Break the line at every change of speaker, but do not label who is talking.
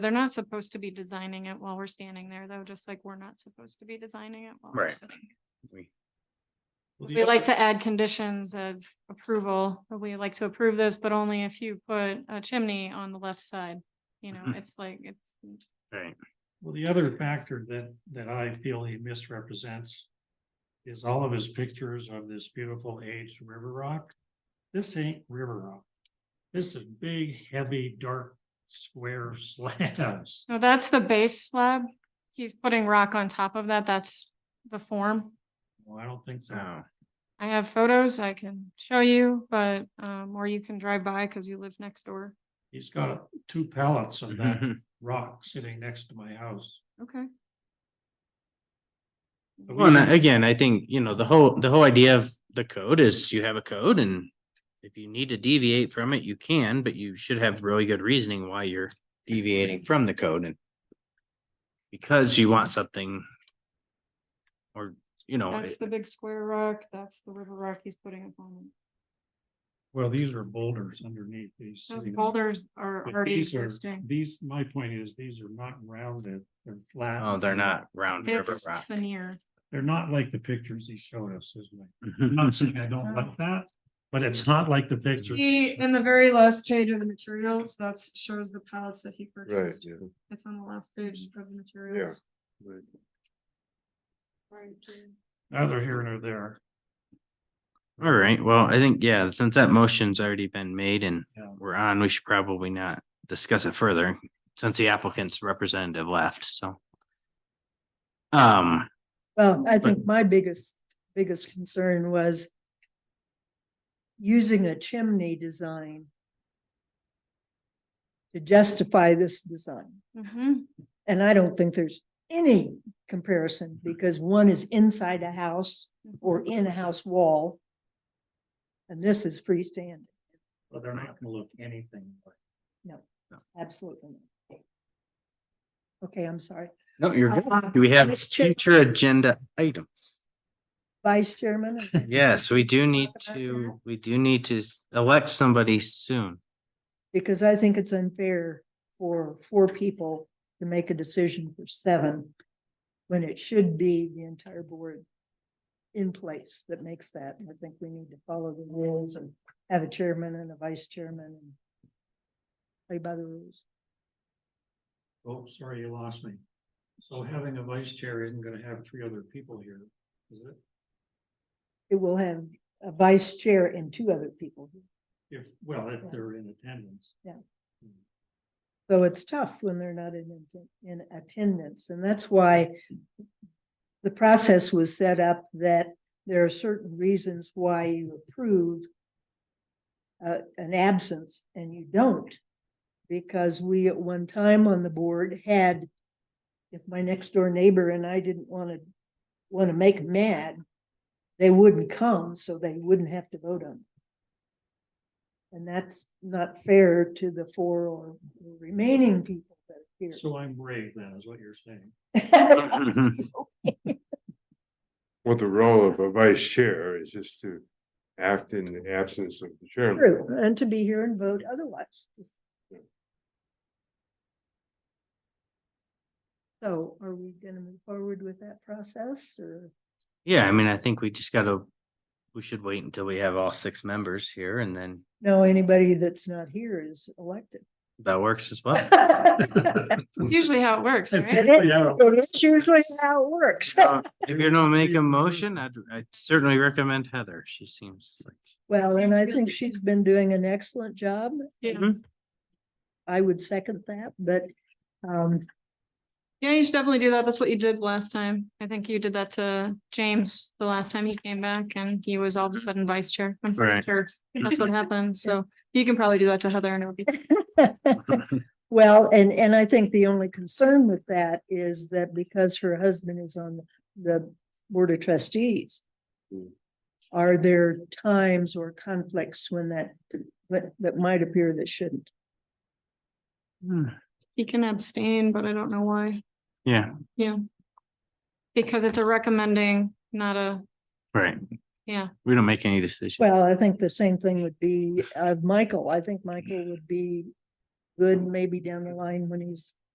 They're not supposed to be designing it while we're standing there, though, just like we're not supposed to be designing it while we're
Right.
sitting.
We-
We like to add conditions of approval, but we like to approve this, but only if you put a chimney on the left side. You know,
Mhm.
it's like, it's,
Right,
Well, the other factor that, that I feel he misrepresents is all of his pictures of this beautiful aged river rock. This ain't river rock. This is big, heavy, dark, square slabs.
no, that's the base slab. He's putting rock on top of that. That's the form.
Well, I don't think so.
so,
I have photos I can show you, but, um, or you can drive by because you live next door.
He's got two pallets of that rock sitting next to my house.
Okay.
But we
well, and
can-
I- again, I think, you know, the whole, the whole idea of the code is you have a code and. If you need to deviate from it, you can, but you should have really good reasoning why you're deviating from the code and. Because you want something. Or, you know,
That's
it-
the big square rock. That's the river rock he's putting up on.
Well, these are boulders underneath these.
Those
sitting-
boulders are
but
already
these are-
existing.
These, my point is, these are not rounded, they're flat.
oh, they're not round river
It's
rock.
veneer.
They're not like the pictures he showed us, isn't it? I'm
Mhm.
not saying I don't like that, but it's not like the pictures.
He, in the very last page of the materials, that shows the pallets that he purchased.
yeah.
It's on the last page of the materials.
Right.
Right, Jane.
Neither here nor there.
All right, well, I think, yeah, since that motion's already been made and
Yeah.
we're on, we should probably not discuss it further since the applicant's representative left, so. Um,
Well, I
But-
think my biggest, biggest concern was using a chimney design to justify this design.
Mhm.
And I don't think there's any comparison
Mm-hmm.
because one is inside a house or in a house wall. And this is freestanding.
But they're not gonna look anything like.
Absolutely. not. Okay, I'm sorry.
no, you're
Uh,
good. Do we have
Ms. Chair-
future agenda items?
Vice Chairman,
Yes, we do need
about
to, we do need to s- elect somebody soon.
because I think it's unfair for four people to make a decision for seven when it should be the entire board in place that makes that. And I think we need to follow the rules and have a chairman and a vice chairman and play by the rules.
Oh, sorry, you lost me. So having a vice chair isn't gonna have three other people here, is it?
It will have a vice chair and two other people.
If, well, if they're in attendance.
So it's tough when they're not in, atten- in attendance, and that's why the process was set up that there are certain reasons why you approve uh, an absence and you don't, because we at one time on the board had, if my next door neighbor and I didn't want to, want to make 'em mad, they wouldn't come, so they wouldn't have to vote on. it. And that's not fair to the four or remaining people that are here.
So I'm brave then, is what you're saying.
Well, the role of a vice chair is just to act in the absence of the
True,
chairman.
and to be here and vote otherwise. So are we gonna move forward with that process or?
Yeah, I mean, I think we just gotta, we should wait until we have all six members here and then
No, anybody that's not here is elected.
that works as well.
Uh.
It
It's usually how it works,
That's
right?
usually how-
is usually how it works.
Uh, If you're gonna make a motion, I'd, I'd certainly recommend Heather. She seems like.
Well, and I think she's been doing an excellent job.
Yeah.
I would second that, but um,
Yeah, you should definitely do that. That's what you did last time. I think you did that to James the last time he came back and he was all of a sudden vice chair. I'm pretty
Right.
sure That's what happened. So you can probably do that to Heather and it'll be.
Well, and, and I think the only concern with that is that because her husband is on the Board of Trustees,
Hmm.
are there times or conflicts when that, that, that might appear that shouldn't?
Hmm,
He can abstain, but I don't know why.
Yeah,
Yeah. Because it's a recommending, not a,
right.
yeah.
We don't make any decisions.
Well, I think the same thing would be, uh, Michael, I think Michael would be good maybe down the line when he's